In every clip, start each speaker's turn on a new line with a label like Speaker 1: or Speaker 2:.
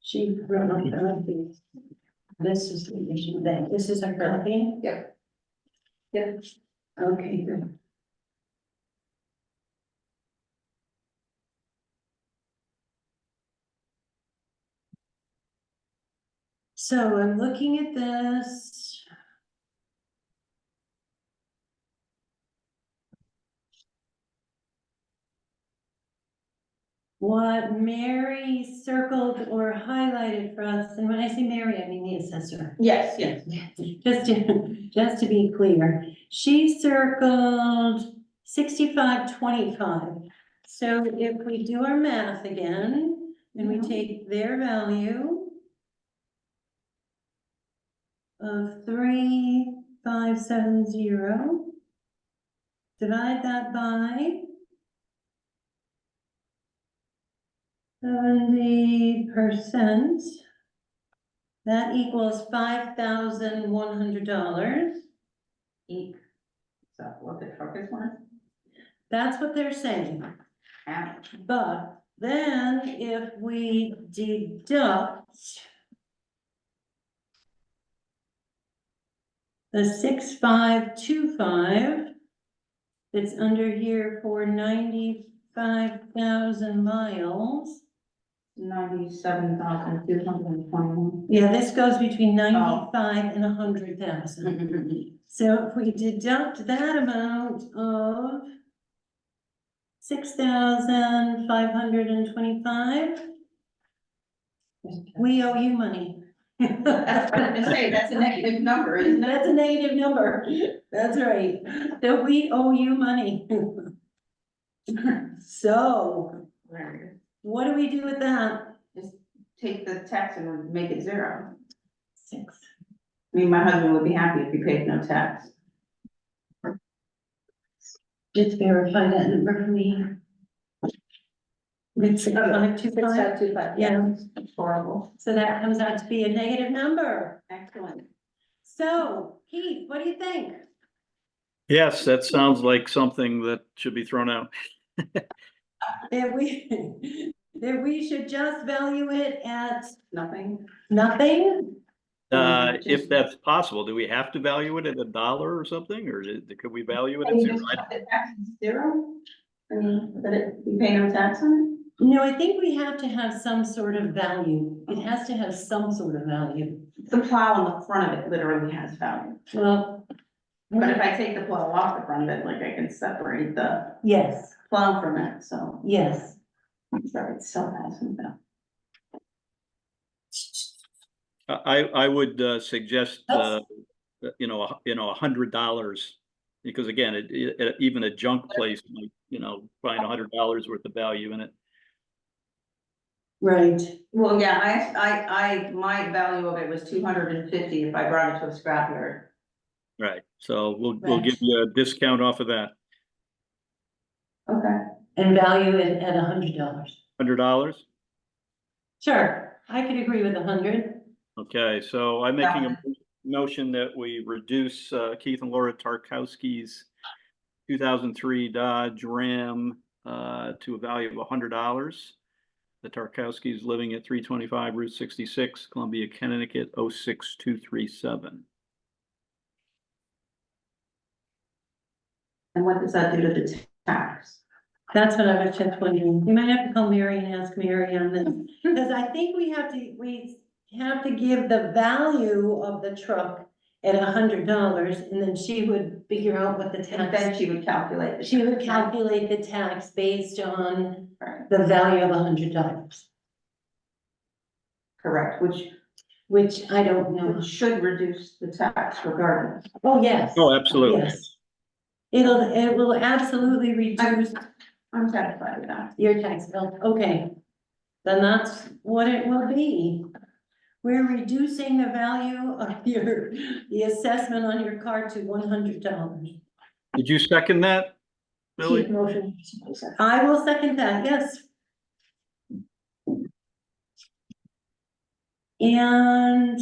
Speaker 1: She wrote on therapy. This is the issue that, this is a therapy?
Speaker 2: Yeah. Yeah.
Speaker 1: Okay, good. So I'm looking at this. what Mary circled or highlighted for us, and when I say Mary, I mean the assessor.
Speaker 2: Yes, yes.
Speaker 1: Just to, just to be clear, she circled sixty-five twenty-five. So if we do our math again, and we
Speaker 2: Mhm.
Speaker 1: take their value of three, five, seven, zero, divide that by seventy percent. That equals five thousand one hundred dollars.
Speaker 2: Eek. So what the truckers want?
Speaker 1: That's what they're saying.
Speaker 2: Ouch.
Speaker 1: But then if we deduct the six, five, two, five, that's under here for ninety-five thousand miles.
Speaker 2: Ninety-seven thousand two hundred and twenty-one.
Speaker 1: Yeah, this goes between ninety-five and a hundred thousand.
Speaker 2: Hmm.
Speaker 1: So if we deduct that amount of six thousand five hundred and twenty-five, we owe you money.
Speaker 2: That's what I'm gonna say, that's a negative number, isn't it?
Speaker 1: That's a negative number. That's right. That we owe you money. So
Speaker 2: Where
Speaker 1: what do we do with that?
Speaker 2: Take the tax and make it zero.
Speaker 1: Six.
Speaker 2: I mean, my husband would be happy if he paid no tax.
Speaker 1: Just verify that number for me. It's six five two five.
Speaker 2: two five.
Speaker 1: Yeah.
Speaker 2: Horrible.
Speaker 1: So that comes out to be a negative number.
Speaker 2: Excellent.
Speaker 1: So, Keith, what do you think?
Speaker 3: Yes, that sounds like something that should be thrown out.
Speaker 1: That we, that we should just value it at
Speaker 2: Nothing.
Speaker 1: nothing?
Speaker 3: Uh,
Speaker 2: Mhm.
Speaker 3: if that's possible, do we have to value it at a dollar or something, or is it- could we value it
Speaker 2: I
Speaker 3: at
Speaker 2: mean,
Speaker 3: zero?
Speaker 2: just cut the tax to zero? I mean, but it, you pay no tax on
Speaker 1: No, I think we have to have some sort of value. It has to have some sort of value.
Speaker 2: it? The plow on the front of it literally has value,
Speaker 1: Well,
Speaker 2: but if I take the plow off the front of it, like I can separate the
Speaker 1: yes,
Speaker 2: plow from it, so.
Speaker 1: yes.
Speaker 2: I'm sorry, it still has some value.
Speaker 3: I, I would uh, suggest, uh, you know, a- you know, a hundred dollars. Because again, it, it, even a junk place, might, you know, find a hundred dollars worth of value in it.
Speaker 1: Right.
Speaker 2: Well, yeah, I, I, I, my value of it was two hundred and fifty if I brought it to a scrapyard.
Speaker 3: Right, so we'll, we'll
Speaker 1: Right.
Speaker 3: give you a discount off of that,
Speaker 2: Okay.
Speaker 1: And value it at a hundred dollars.
Speaker 3: hundred dollars?
Speaker 1: Sure, I could agree with a hundred.
Speaker 3: Okay, so I'm making a motion that we reduce uh, Keith and Laura Tarkowski's two thousand three Dodge Ram uh, to a value of hundred dollars. The Tarkowskis living at three twenty-five Route sixty-six, Columbia, Connecticut, 06237.
Speaker 2: And what does that do to the tax?
Speaker 1: That's what I was just wondering. You might have to call Mary and ask Mary on this. Because I think we have to, we have to give the value of the truck at a hundred dollars, and then she would figure out what the
Speaker 2: And then
Speaker 1: tax.
Speaker 2: she would calculate. the
Speaker 1: She would
Speaker 2: tax.
Speaker 1: calculate the tax based on
Speaker 2: Right,
Speaker 1: the value of a hundred dollars,
Speaker 2: Correct, which
Speaker 1: which I don't know.
Speaker 2: which should reduce the tax regardless.
Speaker 1: Oh, yes.
Speaker 3: Oh, absolutely.
Speaker 1: Yes. It'll, it will absolutely reduce
Speaker 2: I'm satisfied with that.
Speaker 1: your tax bill. Okay. Then that's what it will be. We're reducing the value of your, the assessment on your car to one hundred dollars.
Speaker 3: Did you second that, Billy?
Speaker 2: Motion.
Speaker 1: I will second that, yes. And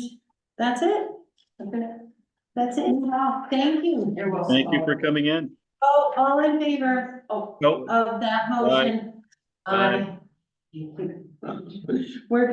Speaker 1: that's it, that's it. Thank you.
Speaker 2: You're welcome.
Speaker 3: Thank you for coming in.
Speaker 1: Oh, all in favor
Speaker 2: Oh,
Speaker 3: No,
Speaker 1: of that motion?
Speaker 3: Aye.
Speaker 1: Aye. We're